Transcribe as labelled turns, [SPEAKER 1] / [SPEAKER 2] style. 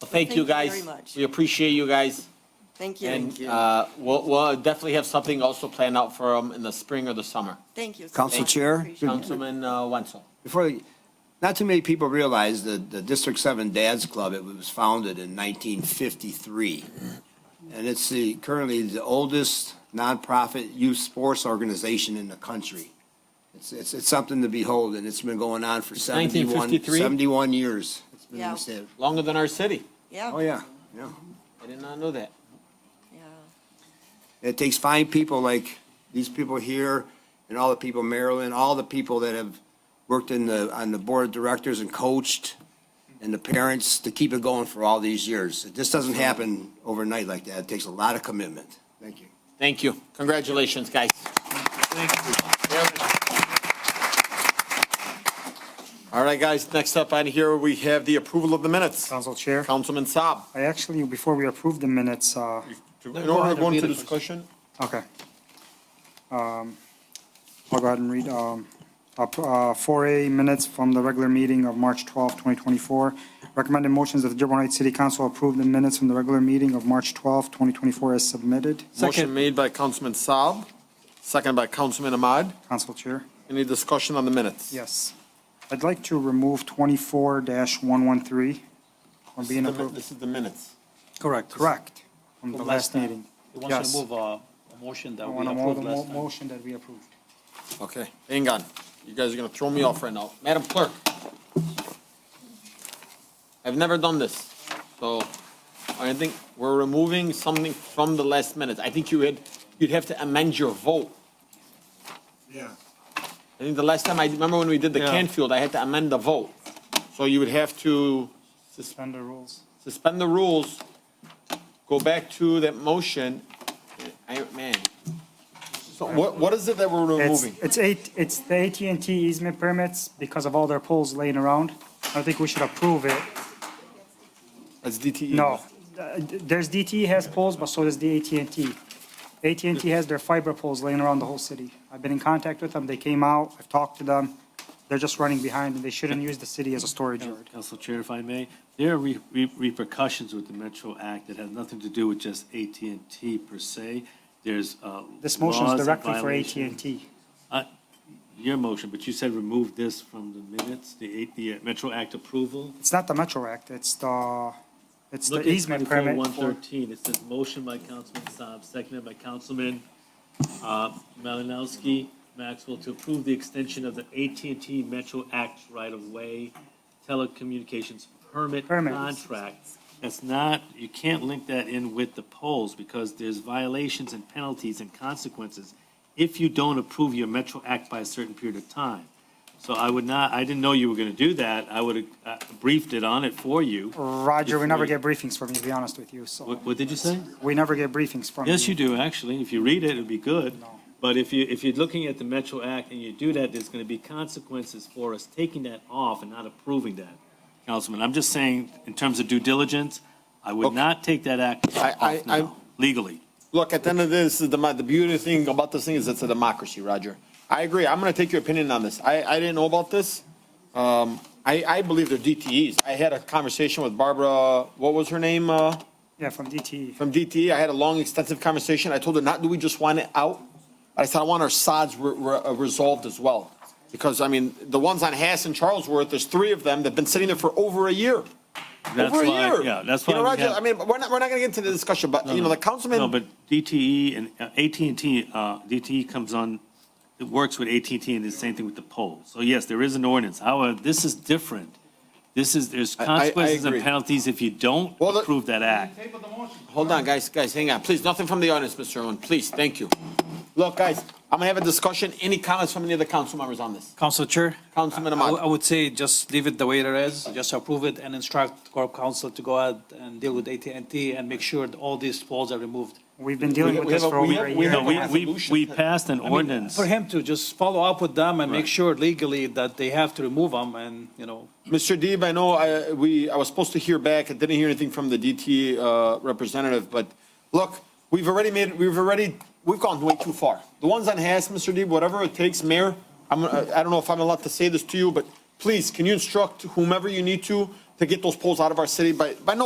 [SPEAKER 1] Well, thank you,
[SPEAKER 2] Thank you very
[SPEAKER 1] guys.
[SPEAKER 2] much.
[SPEAKER 1] We appreciate you guys.
[SPEAKER 2] Thank you.
[SPEAKER 1] And uh, we'll, we'll definitely have something also planned out for them in the spring or the summer.
[SPEAKER 2] Thank you. so
[SPEAKER 3] Council
[SPEAKER 2] much.
[SPEAKER 3] Chair?
[SPEAKER 2] Appreciate it.
[SPEAKER 1] Councilman uh, Wenzel.
[SPEAKER 3] Before, not too many people realize that the District Seven Dads Club, it was founded in nineteen fifty-three. And it's the, currently the oldest nonprofit youth sports organization in the country. It's, it's, it's something to behold, and it's been going on for 71
[SPEAKER 1] 1953?
[SPEAKER 3] 71 years. It's been
[SPEAKER 2] Yeah.
[SPEAKER 3] said.
[SPEAKER 1] Longer than our city.
[SPEAKER 2] Yeah,
[SPEAKER 3] Oh, yeah, yeah.
[SPEAKER 1] I did not know that.
[SPEAKER 2] yeah.
[SPEAKER 3] It takes fine people like these people here and all the people in Maryland, all the people that have worked in the, on the board of directors and coached and the parents to keep it going for all these years. This doesn't happen overnight like that. It takes a lot of commitment. Thank you.
[SPEAKER 1] Thank you. Congratulations, guys. All right, guys, next up on here, we have the approval of the minutes.
[SPEAKER 4] Council Chair,
[SPEAKER 1] Councilman Saab.
[SPEAKER 4] I actually, before we approve the minutes, uh,
[SPEAKER 1] In order to go into discussion,
[SPEAKER 4] okay. Um, I'll go ahead and read, um, up, uh, 4A minutes from the regular meeting of March 12, 2024. Recommended motions that the Dearborn Heights City Council approve the minutes from the regular meeting of March 12, 2024 as submitted.
[SPEAKER 1] motion made by Councilman Saab, second by Councilman Ahmad.
[SPEAKER 4] Council Chair.
[SPEAKER 1] Any discussion on the minutes?
[SPEAKER 4] Yes. I'd like to remove 24-113 from
[SPEAKER 1] This is
[SPEAKER 4] being
[SPEAKER 1] the-
[SPEAKER 4] approved.
[SPEAKER 1] This is the minutes.
[SPEAKER 4] Correct. Correct, from the
[SPEAKER 5] From
[SPEAKER 4] last
[SPEAKER 5] last time.
[SPEAKER 4] meeting.
[SPEAKER 5] He wants
[SPEAKER 4] Yes.
[SPEAKER 5] to move a a motion
[SPEAKER 4] I
[SPEAKER 5] that we
[SPEAKER 4] want to move
[SPEAKER 5] approved
[SPEAKER 4] the mo-
[SPEAKER 5] last time.
[SPEAKER 4] motion that we approved.
[SPEAKER 1] Okay, hang on. You guys are gonna throw me off right now. Madam Clerk. I've never done this, so I think we're removing something from the last minute. I think you had, you'd have to amend your vote.
[SPEAKER 6] Yeah,
[SPEAKER 1] I think the last time, I remember when we did the
[SPEAKER 5] Yeah.
[SPEAKER 1] Canfield, I had to amend the vote. So you would have to
[SPEAKER 4] Suspend the rules.
[SPEAKER 1] suspend the rules, go back to that motion. I, man. So what, what is it that we're
[SPEAKER 4] It's,
[SPEAKER 1] removing?
[SPEAKER 4] it's eight, it's the AT&T easement permits because of all their poles laying around. I think we should approve it.
[SPEAKER 1] That's DTE.
[SPEAKER 4] No, Uh, there's DTE has poles, but so does the AT&T. AT&T has their fiber poles laying around the whole city. I've been in contact with them. They came out. I've talked to them. They're just running behind and they shouldn't use the city as a storage yard.
[SPEAKER 5] Council Chair, if I may, there are re- re- repercussions with the Metro Act that has nothing to do with just at and T per se. There's uh,
[SPEAKER 4] This motion is
[SPEAKER 5] laws and
[SPEAKER 4] directly for
[SPEAKER 5] violations.
[SPEAKER 4] AT&T.
[SPEAKER 5] Your motion, but you said remove this from the minutes, the eight- the uh, Metro Act approval.
[SPEAKER 4] It's not the Metro Act. It's the, it's
[SPEAKER 5] Look
[SPEAKER 4] the
[SPEAKER 5] at
[SPEAKER 4] easement permit. for-
[SPEAKER 5] 24-113. It says motion by Councilman Saab, seconded by Councilman uh, Malinowski, Maxwell, to approve the extension of the at and T Metro Act right-of-way telecommunications permit
[SPEAKER 4] Permit.
[SPEAKER 5] contract. That's not, you can't link that in with the polls because there's violations and penalties and consequences if you don't approve your Metro Act by a certain period of time. So I would not, I didn't know you were going to do that. I would have briefed it on it for you.
[SPEAKER 4] Roger, we
[SPEAKER 5] If
[SPEAKER 4] never get briefings from you, to be honest with you, so.
[SPEAKER 5] What, what did you say?
[SPEAKER 4] We never get briefings from you.
[SPEAKER 5] Yes, you do, actually. If you read it, it'd be good.
[SPEAKER 4] No.
[SPEAKER 5] But if you, if you're looking at the Metro Act and you do that, there's gonna be consequences for us taking that off and not approving that. Councilman, I'm just saying, in terms of due diligence, I would not take that act
[SPEAKER 1] I- I-
[SPEAKER 5] off
[SPEAKER 1] I'm-
[SPEAKER 5] now, legally.
[SPEAKER 1] Look, at the end of this, the, the beauty thing about this thing is it's a democracy, Roger. I agree. I'm going to take your opinion on this. I, I didn't know about this. Um, I, I believe they're DTEs. I had a conversation with Barbara, what was her name, uh,
[SPEAKER 4] Yeah, from DTE.
[SPEAKER 1] from DTE. I had a long, extensive conversation. I told her, not do we just want it out? I said, I want our sods re- re- uh, resolved as well. Because, I mean, the ones on Hass and Charlesworth, there's three of them that've been sitting there for over a year.
[SPEAKER 5] That's
[SPEAKER 1] over a
[SPEAKER 5] why-
[SPEAKER 1] year.
[SPEAKER 5] Yeah, that's
[SPEAKER 1] You
[SPEAKER 5] why.
[SPEAKER 1] know,
[SPEAKER 5] we
[SPEAKER 1] Roger,
[SPEAKER 5] have-
[SPEAKER 1] I mean, we're not, we're not going to get into the discussion, but, you know, the councilman.
[SPEAKER 5] No, but DTE and at and T, uh, DTE comes on, it works with at and T, and the same thing with the poll. So yes, there is an ordinance. However, this is different. This is, there's
[SPEAKER 1] I- I- I
[SPEAKER 5] consequences and
[SPEAKER 1] agree.
[SPEAKER 5] penalties if you don't
[SPEAKER 1] Well, the-
[SPEAKER 5] approve that act.
[SPEAKER 1] Hold on, guys, guys, hang on, please, nothing from the audience, Mr. Owen, please, thank you. Look, guys, I'm gonna have a discussion, any comments from any of the council members on this?
[SPEAKER 7] Council Chair?
[SPEAKER 1] Councilman
[SPEAKER 7] I- I
[SPEAKER 1] Ahmad.
[SPEAKER 7] I would say just leave it the way it is, just approve it and instruct Corp Council to go ahead and deal with at and t and make sure that all these poles are removed.
[SPEAKER 4] We've been dealing
[SPEAKER 1] We-
[SPEAKER 4] with
[SPEAKER 1] we
[SPEAKER 4] this
[SPEAKER 1] have a-
[SPEAKER 4] for
[SPEAKER 1] we
[SPEAKER 4] over a
[SPEAKER 1] have- we
[SPEAKER 4] year.
[SPEAKER 1] have a
[SPEAKER 5] No, we, we,
[SPEAKER 1] resolution.
[SPEAKER 5] we passed an
[SPEAKER 7] I mean,
[SPEAKER 5] ordinance.
[SPEAKER 7] For him to just follow up with them and make sure legally that they have to remove them and, you know,
[SPEAKER 1] Mr. Deeb, I know I, we, I was supposed to hear back, I didn't hear anything from the DT, uh, representative, but look, we've already made, we've already, we've gone way too far. The ones on Hass, Mr. Deeb, whatever it takes, Mayor, I'm, uh, I I don't know if I'm allowed to say this to you, but please, can you instruct whomever you need to, to get those polls out of our city by, by no